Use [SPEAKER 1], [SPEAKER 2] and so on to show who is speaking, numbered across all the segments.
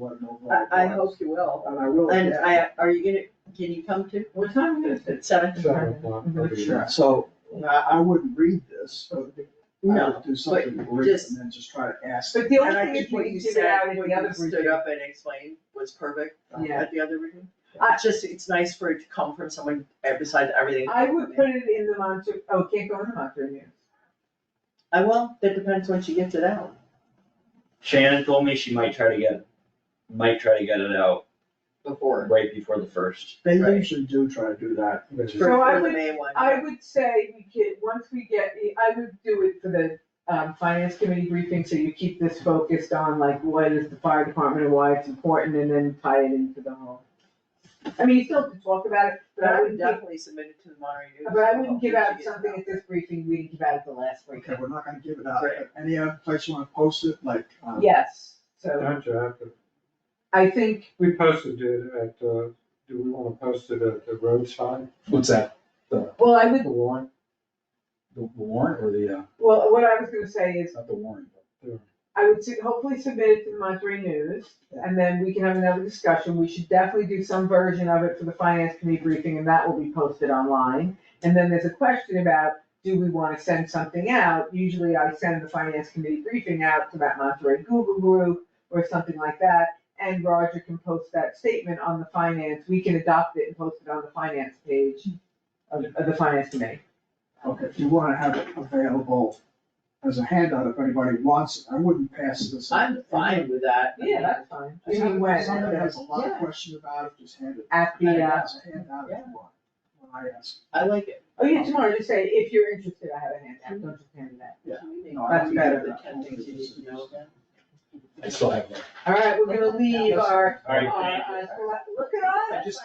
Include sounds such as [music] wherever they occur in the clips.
[SPEAKER 1] one more.
[SPEAKER 2] I, I hope you will.
[SPEAKER 1] And I will.
[SPEAKER 2] And
[SPEAKER 1] yeah.
[SPEAKER 2] I, are you gonna, can you come to, what time is it? Seven?
[SPEAKER 1] Seven o'clock.
[SPEAKER 3] Mm-hmm.
[SPEAKER 2] Sure.
[SPEAKER 1] So I, I wouldn't read this, but I
[SPEAKER 2] No,
[SPEAKER 1] would do something brief
[SPEAKER 2] just-
[SPEAKER 1] and then just try to ask.
[SPEAKER 4] But the
[SPEAKER 2] and I
[SPEAKER 4] only thing
[SPEAKER 2] think
[SPEAKER 4] is we
[SPEAKER 2] what
[SPEAKER 4] can
[SPEAKER 2] you
[SPEAKER 4] give it out
[SPEAKER 2] said,
[SPEAKER 4] in
[SPEAKER 2] when
[SPEAKER 4] the other
[SPEAKER 2] you stood
[SPEAKER 4] briefing.
[SPEAKER 2] up and explained was perfect uh,
[SPEAKER 4] Yeah.
[SPEAKER 2] at the other meeting. It's Uh, just, it's nice for it to come from someone uh, besides everything.
[SPEAKER 4] I would put it in the Monterey, oh, it can't go in the Monterey News.
[SPEAKER 2] I will, that depends when she gets it out.
[SPEAKER 3] Shannon told me she might try to get, might try to get it out
[SPEAKER 2] Before.
[SPEAKER 3] right before the first.
[SPEAKER 1] They
[SPEAKER 2] Right.
[SPEAKER 1] usually do try to do that, which is,
[SPEAKER 4] Sure. So I
[SPEAKER 2] For the
[SPEAKER 4] would-
[SPEAKER 2] May one.
[SPEAKER 4] I would say we could, once we get the, I would do it for the, um, finance committee briefing, so you keep this focused on like what is the fire department and why it's important, and then tie it into the whole. I mean, you still have to talk about it,
[SPEAKER 2] But I would
[SPEAKER 4] give,
[SPEAKER 2] definitely submit it to the Monterey News.
[SPEAKER 4] but I
[SPEAKER 2] Hopefully
[SPEAKER 4] wouldn't give
[SPEAKER 2] she
[SPEAKER 4] out
[SPEAKER 2] gets it
[SPEAKER 4] something at this briefing, we didn't give out at the last
[SPEAKER 1] okay,
[SPEAKER 4] briefing.
[SPEAKER 1] we're not gonna give it out,
[SPEAKER 2] Right.
[SPEAKER 1] but any other place you wanna post it, like, um,
[SPEAKER 4] Yes, so
[SPEAKER 5] Don't you have to,
[SPEAKER 4] I think,
[SPEAKER 5] we posted it at, uh, do we wanna post it at the roadside,
[SPEAKER 6] What's that,
[SPEAKER 4] well, I
[SPEAKER 5] the
[SPEAKER 4] would,
[SPEAKER 5] warrant?
[SPEAKER 6] the warrant or the, uh,
[SPEAKER 4] well, what I was gonna say is,
[SPEAKER 6] not the warrant, but
[SPEAKER 4] I would su- hopefully submit it to the Monterey News, and then we can have another discussion, we should definitely do some version of it for the finance committee briefing, and that will be posted online. And then there's a question about, do we wanna send something out, usually I send the finance committee briefing out to that Monterey Google group, or something like that, and Roger can post that statement on the finance, we can adopt it and post it on the finance page of, of the finance committee.
[SPEAKER 1] okay, if you wanna have it available as a handout, if anybody wants, it. I wouldn't pass this.
[SPEAKER 2] out. I'm fine with that.
[SPEAKER 4] Yeah, that's fine,
[SPEAKER 1] If
[SPEAKER 4] I mean,
[SPEAKER 1] somebody-
[SPEAKER 4] when,
[SPEAKER 1] Somebody has a lot of
[SPEAKER 4] Yeah.
[SPEAKER 1] question about it, just hand it.
[SPEAKER 4] at the, uh,
[SPEAKER 1] As a handout if you want, when I ask.
[SPEAKER 2] I like it.
[SPEAKER 4] Oh, yeah, tomorrow, just say, if you're interested, I have a handout, don't just hand it out.
[SPEAKER 1] No, I
[SPEAKER 4] That's
[SPEAKER 1] don't
[SPEAKER 4] better
[SPEAKER 1] do
[SPEAKER 2] The
[SPEAKER 1] that.
[SPEAKER 2] ten things you need to know then.
[SPEAKER 6] I still have one.
[SPEAKER 4] All right, we're gonna leave our,
[SPEAKER 3] All
[SPEAKER 4] our,
[SPEAKER 3] right,
[SPEAKER 4] our, uh, look at
[SPEAKER 2] I
[SPEAKER 4] us,
[SPEAKER 6] just-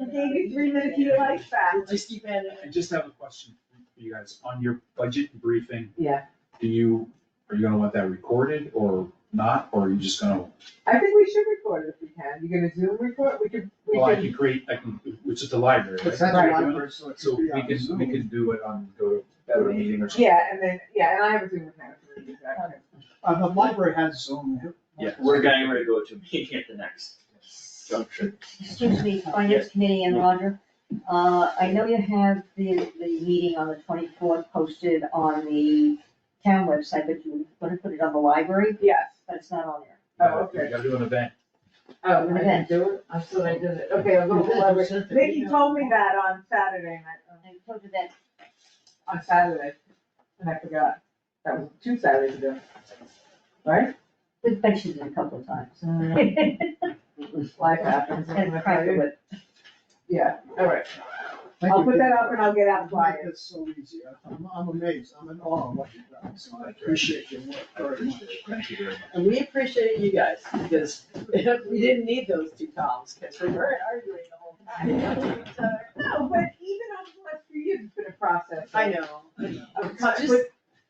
[SPEAKER 4] we gave you three minutes, you like that.
[SPEAKER 2] We'll just keep adding.
[SPEAKER 6] I just have a question for you guys, on your budget briefing.
[SPEAKER 4] Yeah.
[SPEAKER 6] Do you, are you gonna want that recorded or not, or are you just gonna,
[SPEAKER 4] I think we should record it if we can, you gonna Zoom record, we could, we
[SPEAKER 6] well, I
[SPEAKER 4] can,
[SPEAKER 6] can create, I can, it's at the library,
[SPEAKER 1] But
[SPEAKER 6] right?
[SPEAKER 1] that's a
[SPEAKER 4] Right.
[SPEAKER 1] library, so it
[SPEAKER 6] So
[SPEAKER 1] could
[SPEAKER 6] we
[SPEAKER 1] be on
[SPEAKER 6] can,
[SPEAKER 1] Zoom.
[SPEAKER 6] we can do it on, go to better meeting or something.
[SPEAKER 4] yeah, and then, yeah, and I have a Zoom account. if we need that.
[SPEAKER 1] Uh, the library has Zoom.
[SPEAKER 3] Yeah, we're getting ready to go to a meeting at the next junction.
[SPEAKER 7] Excuse me, Finance Committee and Roger, uh, I know you have the, the meeting on the twenty-fourth posted on the town website, but you were gonna put it on the library,
[SPEAKER 4] Yes,
[SPEAKER 7] but it's not on there.
[SPEAKER 4] Oh, okay.
[SPEAKER 6] You gotta do an event.
[SPEAKER 4] oh, I didn't do it, I still ain't done it, okay, I'll go to the library. Vicky told me that on Saturday, and I-
[SPEAKER 7] I told you that
[SPEAKER 4] on Saturday, and I forgot, that was two Saturdays ago, right? Mm-hmm.
[SPEAKER 7] We've mentioned it a couple of times.
[SPEAKER 4] Life happens.
[SPEAKER 7] It's kind of private, but
[SPEAKER 4] Yeah, all right,
[SPEAKER 1] Thank
[SPEAKER 4] I'll
[SPEAKER 1] you,
[SPEAKER 4] put that
[SPEAKER 1] Vicky.
[SPEAKER 4] up and I'll get out
[SPEAKER 1] You make
[SPEAKER 4] flyers.
[SPEAKER 1] this so easy. I'm, I'm amazed. I'm in awe of what you've done, so I appreciate your work
[SPEAKER 6] I
[SPEAKER 1] very much.
[SPEAKER 6] appreciate it, thank you very much.
[SPEAKER 2] And we appreciate you guys, because [laughs] we didn't need those two columns, because we were arguing the whole time.
[SPEAKER 4] No, but even on the last few years, it's been a process.
[SPEAKER 2] I know.
[SPEAKER 4] Of
[SPEAKER 2] It's
[SPEAKER 4] ti-
[SPEAKER 2] just-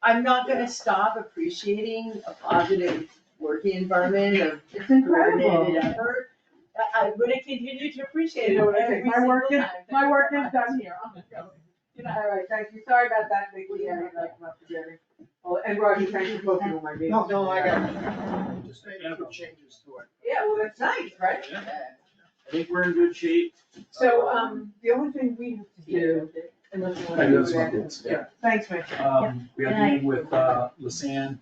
[SPEAKER 2] I'm not gonna stop appreciating a positive working environment of
[SPEAKER 4] It's
[SPEAKER 2] coordinated
[SPEAKER 4] incredible.
[SPEAKER 2] effort. I- I'm gonna continue to appreciate
[SPEAKER 4] You
[SPEAKER 2] it
[SPEAKER 4] know what I
[SPEAKER 2] every
[SPEAKER 4] think, my
[SPEAKER 2] single
[SPEAKER 4] work is,
[SPEAKER 2] time.
[SPEAKER 4] my work is done here, I'm going. All right, thank you, sorry about that, Vicky, I don't like about the Jerry. Well, and Roger, thank you both of you, my baby.
[SPEAKER 1] No, no, I got it. Just made a few changes to it.
[SPEAKER 4] Yeah, well, that's nice, right?
[SPEAKER 3] I think we're in good shape.
[SPEAKER 4] So, um, the only thing we have to do, unless you
[SPEAKER 6] I
[SPEAKER 4] wanna
[SPEAKER 6] do
[SPEAKER 4] do
[SPEAKER 6] have some
[SPEAKER 4] that.
[SPEAKER 6] updates, yeah.
[SPEAKER 4] Thanks, Mitch.
[SPEAKER 6] Um, we had a meeting with, uh, Lisanne,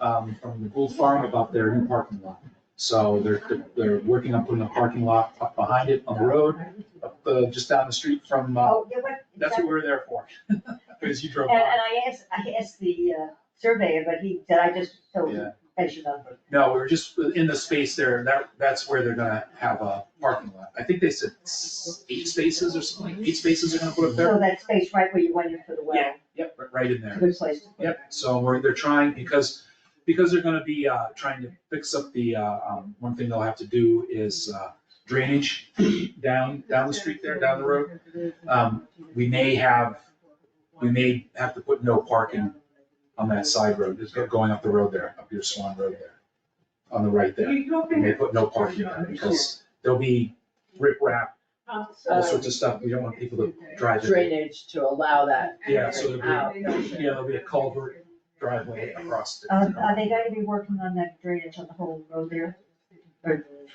[SPEAKER 6] um, from the Gold Farm about their new parking lot. So they're, they're working on putting a parking lot up behind it on the road, up, uh, just down the street from, uh,
[SPEAKER 7] Oh, yeah, but.
[SPEAKER 6] that's what we were there for. [laughs] Because you drove
[SPEAKER 7] And, and
[SPEAKER 6] by.
[SPEAKER 7] I asked, I asked the uh, surveyor, but he said, I just told
[SPEAKER 6] Yeah.
[SPEAKER 7] you, as you know.
[SPEAKER 6] No, we were just in the space there, that, that's where they're gonna have a parking lot. I think they said s- eight spaces or something, like eight spaces are gonna put up there.
[SPEAKER 7] So that space right where you went in for the well,
[SPEAKER 6] Yep, right- right in there.
[SPEAKER 7] good place to put it.
[SPEAKER 6] Yep, so we're, they're trying, because, because they're gonna be, uh, trying to fix up the, uh, um, one thing they'll have to do is, uh, drainage [clears throat] down, down the street there, down the road. Um, we may have, we may have to put no parking on that side road, just go- going up the road there, up your Swan Road there, on the right there.
[SPEAKER 4] You go
[SPEAKER 6] We
[SPEAKER 4] in.
[SPEAKER 6] may put no parking on it, because there'll be riprap,
[SPEAKER 4] Uh,
[SPEAKER 6] all sorts of stuff, we don't want people to drive in.
[SPEAKER 2] Drainage to allow that.
[SPEAKER 6] Yeah, so it'll be-
[SPEAKER 2] Out.
[SPEAKER 6] Yeah, there'll be a culvert driveway across the.
[SPEAKER 7] Um, are they gonna be working on that drainage on the whole road there?
[SPEAKER 4] Right.